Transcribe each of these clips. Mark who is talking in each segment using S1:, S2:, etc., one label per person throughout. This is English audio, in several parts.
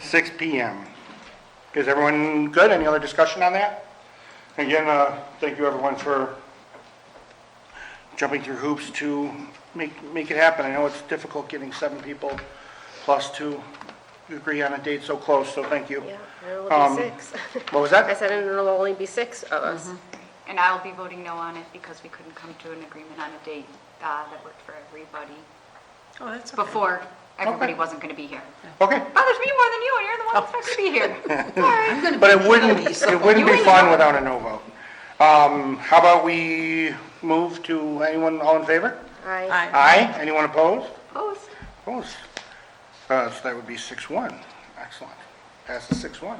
S1: six PM. Is everyone good? Any other discussion on that? Again, uh, thank you everyone for jumping through hoops to make, make it happen. I know it's difficult getting seven people plus two agree on a date so close, so thank you.
S2: Yeah, there will
S1: Um,
S2: be six.
S1: What was
S2: I
S1: that?
S2: said, and there will only be six of us.
S3: And I'll be voting no on it because we couldn't come to an agreement on a date uh, that worked for everybody
S4: Oh, that's okay.
S3: before everybody
S1: Okay.
S3: wasn't going to be here.
S1: Okay,
S3: Bothers me more than you, and you're the one that's not going to be here. Sorry.
S1: but it wouldn't, it wouldn't be fun without a no vote. Um, how about we move to, anyone, all in favor?
S2: I,
S4: Aye.
S1: Aye, anyone opposed?
S3: Opposed?
S1: Opposed? Uh, so that would be six one. Excellent. Passes six one.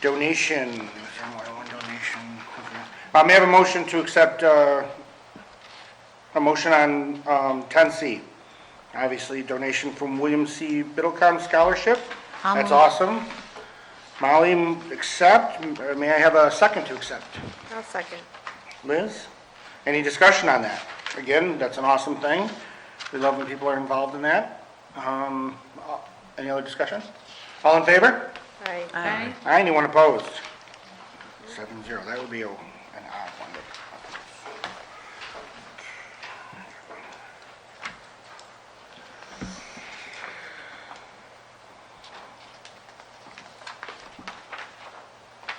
S1: Donation, is there more than one donation? Okay. Uh, may I have a motion to accept, uh, a motion on, um, ten C? Obviously, donation from William C. Biddlecom Scholarship. That's awesome. Molly, m- accept. Uh, May I have a second to accept?
S2: I'll second.
S1: Liz? Any discussion on that? Again, that's an awesome thing. We love when people are involved in that. Um, uh, Any other discussion? All in favor?
S2: I,
S4: Aye.
S1: Aye, anyone opposed? Seven zero, that would be a- an odd one.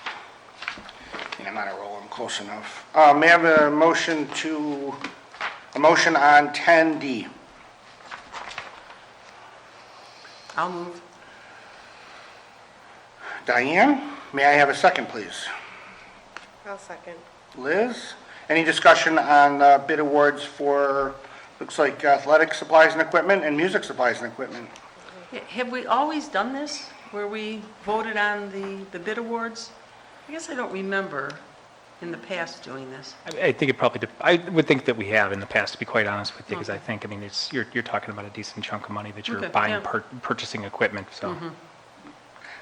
S1: to- And I'm not a roll, I'm close enough. Uh, May I have a motion to, a motion on 10D?
S4: I'll move.
S1: Diane, may I have a second, please?
S2: I'll second.
S1: Liz, any discussion on uh, bid awards for, looks like athletic supplies and equipment and music supplies and equipment?
S4: Ha- Have we always done this, where we voted on the, the bid awards? I guess I don't remember in the past doing this.
S5: I- I think it probably, dep- I would think that we have in the past, to be quite honest with you, because I think, I mean, it's, you're, you're talking about a decent chunk of money that you're
S4: Okay, yeah.
S5: buying, pur- purchasing equipment, so.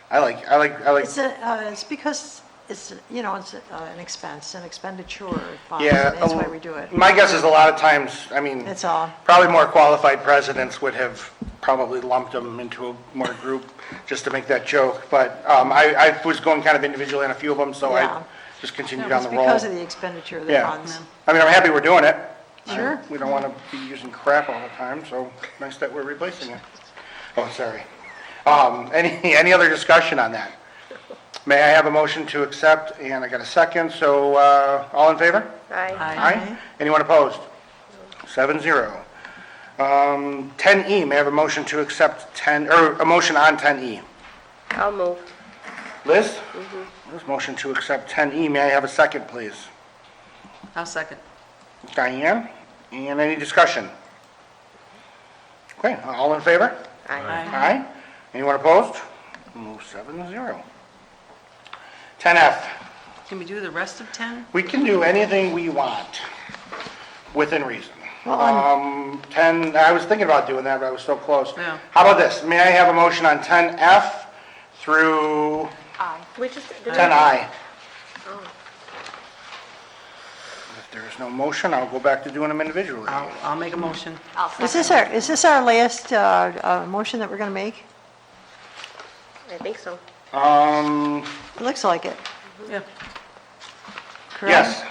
S1: I like, I like, I like,
S6: It's, a- uh, it's because it's, you know, it's uh, an expense, an expenditure. fund,
S1: yeah. oh,
S6: and That's why we do it.
S1: My guess is a lot of times, I mean.
S6: That's all.
S1: Probably more qualified presidents would have probably lumped them into a more group, just to make that joke. But um, I, I was going kind of individually on a few of them, so
S6: Yeah.
S1: I just continued down
S6: It's
S1: the roll.
S6: because of the expenditure of the
S1: Yeah.
S6: funds.
S1: I mean, I'm happy we're doing it.
S6: Sure.
S1: We don't want to be using crap all the time, so nice that we're replacing it. Oh, sorry. Um, any, any other discussion on that? May I have a motion to accept? And I got a second, so, uh, all in favor?
S2: I,
S1: Aye. Anyone opposed? Seven zero. Um, ten E, may I have a motion to accept ten, or a motion on ten E?
S2: I'll move.
S1: Liz? Liz, motion to accept ten E, may I have a second, please?
S4: I'll second.
S1: Diane, and any discussion? Okay, all in favor?
S2: I,
S1: Aye. Anyone opposed? Move seven to zero. 10F,
S4: Can we do the rest of 10?
S1: we can do anything we want, within reason.
S6: Well, I'm-
S1: Um, 10, I was thinking about doing that, but I was so close.
S4: Yeah.
S1: How about this? May I have a motion on 10F through
S3: Aye.
S2: we just, did I,
S1: 10I? If there is no motion, I'll go back to doing them individually.
S4: I'll, I'll make a motion.
S3: I'll
S6: Is
S3: second.
S6: this our, is this our last uh, uh, motion that we're going to make?
S2: I think so.
S1: Um,
S6: It looks like it,
S4: Yeah.
S6: correct?
S1: yes.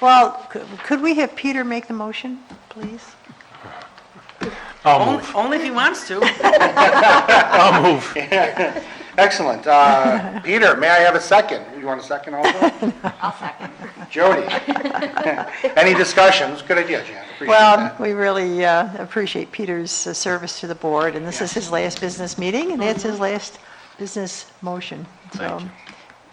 S6: Well, could- could we have Peter make the motion, please?
S5: I'll
S1: Oh,
S4: Only,
S5: move,
S4: only if he wants to.
S5: I'll move.
S1: Excellent. Uh, Peter, may I have a second? You want a second also?
S3: I'll second.
S1: Jody? Any discussions? Good idea, Jan. Appreciate
S6: Well,
S1: that.
S6: we really uh, appreciate Peter's uh, service to the board, and this is his last business meeting, and it's his last business motion. So
S5: Thank you.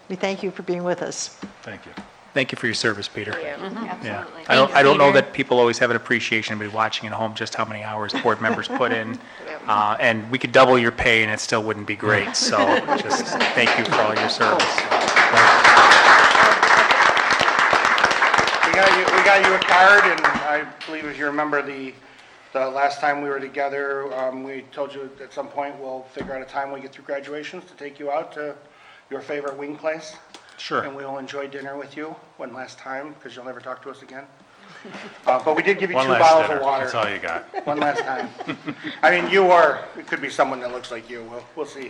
S6: we thank you for being with us.
S5: Thank you. Thank you for your service, Peter.
S2: Yeah.
S5: Mm-hmm. Yeah.
S3: Absolutely.
S5: I don't, I don't know that people always have an appreciation, of watching at home, just how many hours board members put in. Uh, and we could double your pay and it still wouldn't be great, so just thank you for all your service.
S1: We got you, we got you a card, and I believe if you remember the, the last time we were together, um, we told you at some point, we'll figure out a time when we get through graduations to take you out to your favorite wing place.
S5: Sure.
S1: And we'll enjoy dinner with you one last time, because you'll never talk to us again. Uh, But we did give you two
S7: One last
S1: bottles
S7: dinner,
S1: of water.
S7: that's all you got.
S1: One last time. I mean, you are, it could be someone that looks like you. We'll, we'll see.